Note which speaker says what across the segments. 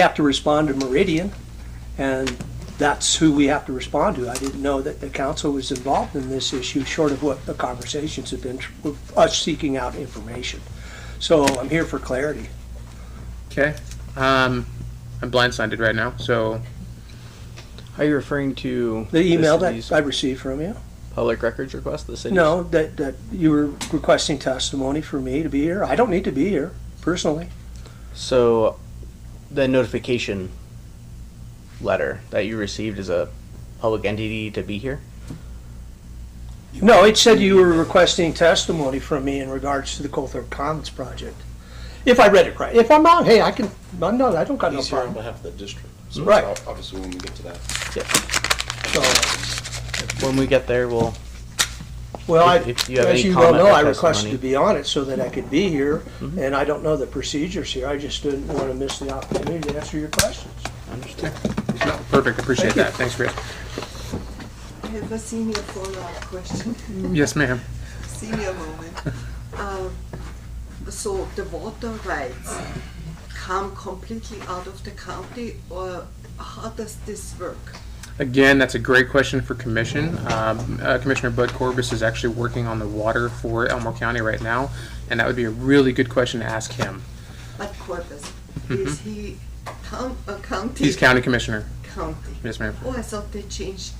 Speaker 1: have to respond to Meridian, and that's who we have to respond to. I didn't know that the council was involved in this issue, short of what the conversations have been, with us seeking out information. So I'm here for clarity.
Speaker 2: Okay. Um, I'm blindsided right now, so
Speaker 3: Are you referring to
Speaker 1: The email
Speaker 3: city's
Speaker 1: that I received from you,
Speaker 3: public records request? The city?
Speaker 1: no, that, that you were requesting testimony for me to be here. I don't need to be here, personally.
Speaker 3: So, the notification letter that you received as a public entity to be here.
Speaker 1: No, it said you were requesting testimony from me in regards to the Colthorpe Commons project. If I read it right. If I'm wrong, hey, I can, I'm not, I don't got no
Speaker 4: He's here on
Speaker 1: problem.
Speaker 4: behalf of the district. So
Speaker 1: Right.
Speaker 4: ob- Obviously, when we get to that.
Speaker 1: So-
Speaker 3: When we get there, we'll.
Speaker 1: Well, I,
Speaker 3: If- if you have
Speaker 1: as
Speaker 3: any
Speaker 1: you well
Speaker 3: comment
Speaker 1: know,
Speaker 3: or
Speaker 1: I requested
Speaker 3: testimony.
Speaker 1: to be on it so that I could be here,
Speaker 3: Mm-hmm.
Speaker 1: and I don't know the procedures here. I just didn't want to miss the opportunity to answer your questions.
Speaker 2: perfect. Appreciate
Speaker 1: Thank you.
Speaker 2: that. Thanks, Chris.
Speaker 5: I have a senior follow-up question,
Speaker 2: Yes, ma'am.
Speaker 5: senior moment. Um, so the water rights come completely out of the county, or how does this work?
Speaker 2: Again, that's a great question for commission. Um, uh, Commissioner Bud Corbis is actually working on the water for Elmore County right now, and that would be a really good question to ask him.
Speaker 5: At Corpus, is he town, uh, county?
Speaker 2: Mm-hmm. He's county commissioner.
Speaker 5: County.
Speaker 2: Yes, ma'am.
Speaker 5: Oh, I thought they changed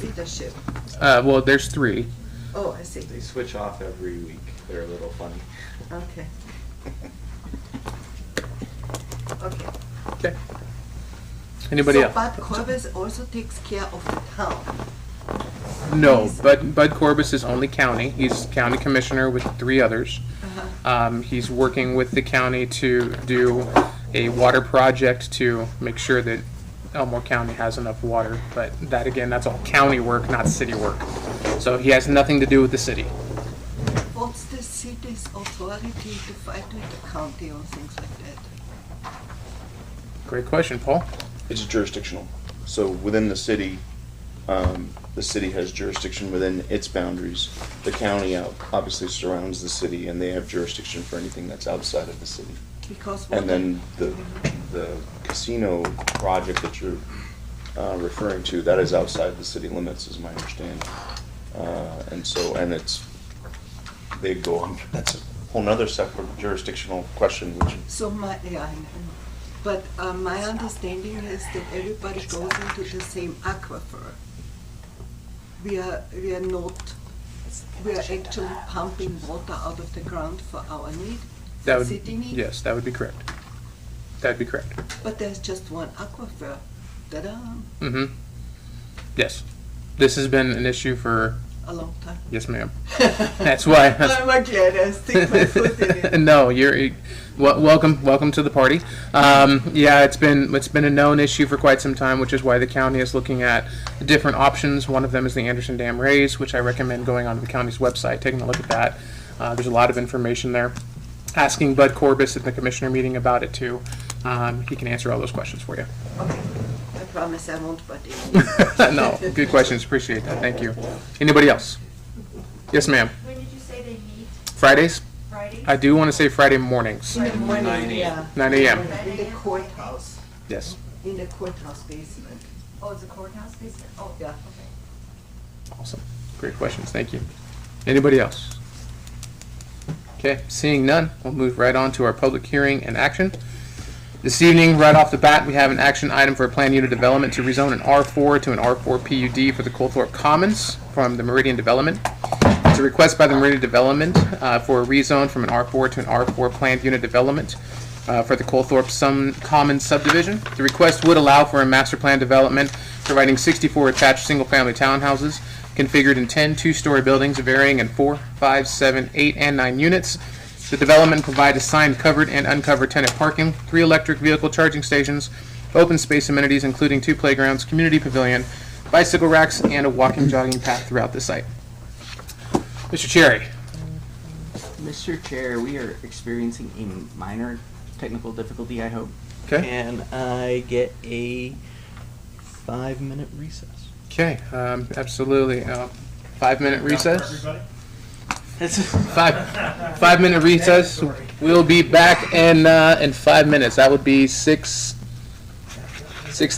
Speaker 5: leadership.
Speaker 2: Uh, well, there's three.
Speaker 5: Oh, I see,
Speaker 4: They switch off every week. They're a little funny.
Speaker 5: okay. Okay.
Speaker 2: Anybody
Speaker 5: So,
Speaker 2: else?
Speaker 5: But Corpus also takes care of the town,
Speaker 2: No,
Speaker 5: Please.
Speaker 2: Bud, Bud Corbus is only county. He's county commissioner with three others. Um, he's working with the county to do a water project to make sure that Elmore County has enough water. But that again, that's all county work, not city work. So he has nothing to do with the city.
Speaker 5: what's the city's authority to fight with the county or things like that?
Speaker 2: Great question, Paul.
Speaker 6: It's jurisdictional. So within the city, um, the city has jurisdiction within its boundaries. The county out, obviously surrounds the city and they have jurisdiction for anything that's outside of the city.
Speaker 5: Because what?
Speaker 6: And then the, the casino project that you're, uh, referring to, that is outside the city limits is my understanding. Uh, and so, and it's, they go on, that's a whole nother separate jurisdictional question, which
Speaker 5: So my, yeah, I know. But uh, my understanding is that everybody goes into the same aquifer. We are, we are not, we are actually pumping water out of the ground for our need,
Speaker 2: That would,
Speaker 5: city need.
Speaker 2: yes, that would be correct. That'd be correct.
Speaker 5: But there's just one aquifer. Ta-da,
Speaker 2: Mm-hmm. Yes. This has been an issue for,
Speaker 5: a long time.
Speaker 2: yes, ma'am. That's why, that's
Speaker 5: I'm glad I stick my foot in it.
Speaker 2: no, you're well, welcome. Welcome to the party. Um, yeah, it's been it's been a known issue for quite some time, which is why the county is looking at different options. One of them is the Anderson Dam raise, which I recommend going onto the county's website, taking a look at that. Uh, there's a lot of information there. Asking Bud Corbis at the commissioner meeting about it too. Um, he can answer all those questions for you.
Speaker 5: Okay, I promise I won't butt in.
Speaker 2: no, good questions. Appreciate that. Thank you. Anybody else? Yes, ma'am.
Speaker 7: When did you say they meet?
Speaker 2: Fridays.
Speaker 7: Friday?
Speaker 2: I do want to say Friday mornings,
Speaker 5: In the morning, yeah.
Speaker 2: 9 a.m.
Speaker 5: In the courthouse,
Speaker 2: Yes.
Speaker 5: in the courthouse basement.
Speaker 7: Oh, it's a courthouse basement? Oh,
Speaker 5: Yeah.
Speaker 7: Okay.
Speaker 2: Awesome. Great questions. Thank you. Anybody else? Okay, seeing none, we'll move right on to our public hearing and action. This evening, right off the bat, we have an action item for a plan unit development to rezone an R4 to an R4 PUD for the Colthorpe Commons from the Meridian Development. It's a request by the Meridian Development uh, for a rezone from an R4 to an R4 planned unit development uh, for the Colthorpe Sun Commons subdivision. The request would allow for a master plan development providing 64 attached single-family townhouses configured in 10 two-story buildings varying in 4, 5, 7, 8, and 9 units. The development provides assigned covered and uncovered tenant parking, three electric vehicle charging stations, open space amenities including two playgrounds, community pavilion, bicycle racks, and a walking jogging path throughout the site. Mr. Cherry,
Speaker 8: Mr. Chair, we are experiencing a minor technical difficulty, I hope.
Speaker 2: Okay.
Speaker 8: Can I get a five-minute recess?
Speaker 2: Okay, um, absolutely. Uh, five minute recess. Five five minute recess. We'll be back in uh, in five minutes. That would be six Six